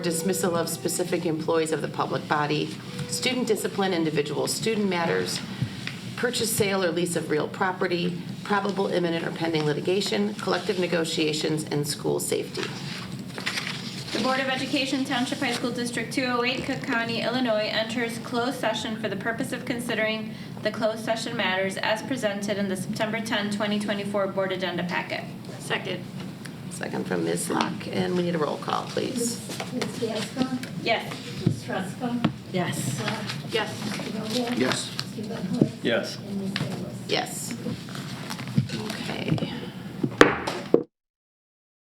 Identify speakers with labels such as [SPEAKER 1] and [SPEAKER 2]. [SPEAKER 1] dismissal of specific employees of the public body, student discipline, individual student matters, purchase, sale, or lease of real property, probable imminent or pending litigation, collective negotiations, and school safety.
[SPEAKER 2] The Board of Education Township High School District 208, Cook County, Illinois enters closed session for the purpose of considering the closed session matters as presented in the September 10, 2024 Board Agenda Packet. Second.
[SPEAKER 1] Second from Ms. Locke, and we need a roll call, please.
[SPEAKER 3] Ms. Gasko?
[SPEAKER 2] Yes.
[SPEAKER 3] Ms. Ruska?
[SPEAKER 4] Yes.
[SPEAKER 1] Yes.
[SPEAKER 3] Mr. Vogel?
[SPEAKER 5] Yes.
[SPEAKER 3] Mr. Van Horn?
[SPEAKER 6] Yes.
[SPEAKER 3] And Ms. Salas?
[SPEAKER 1] Yes. Okay.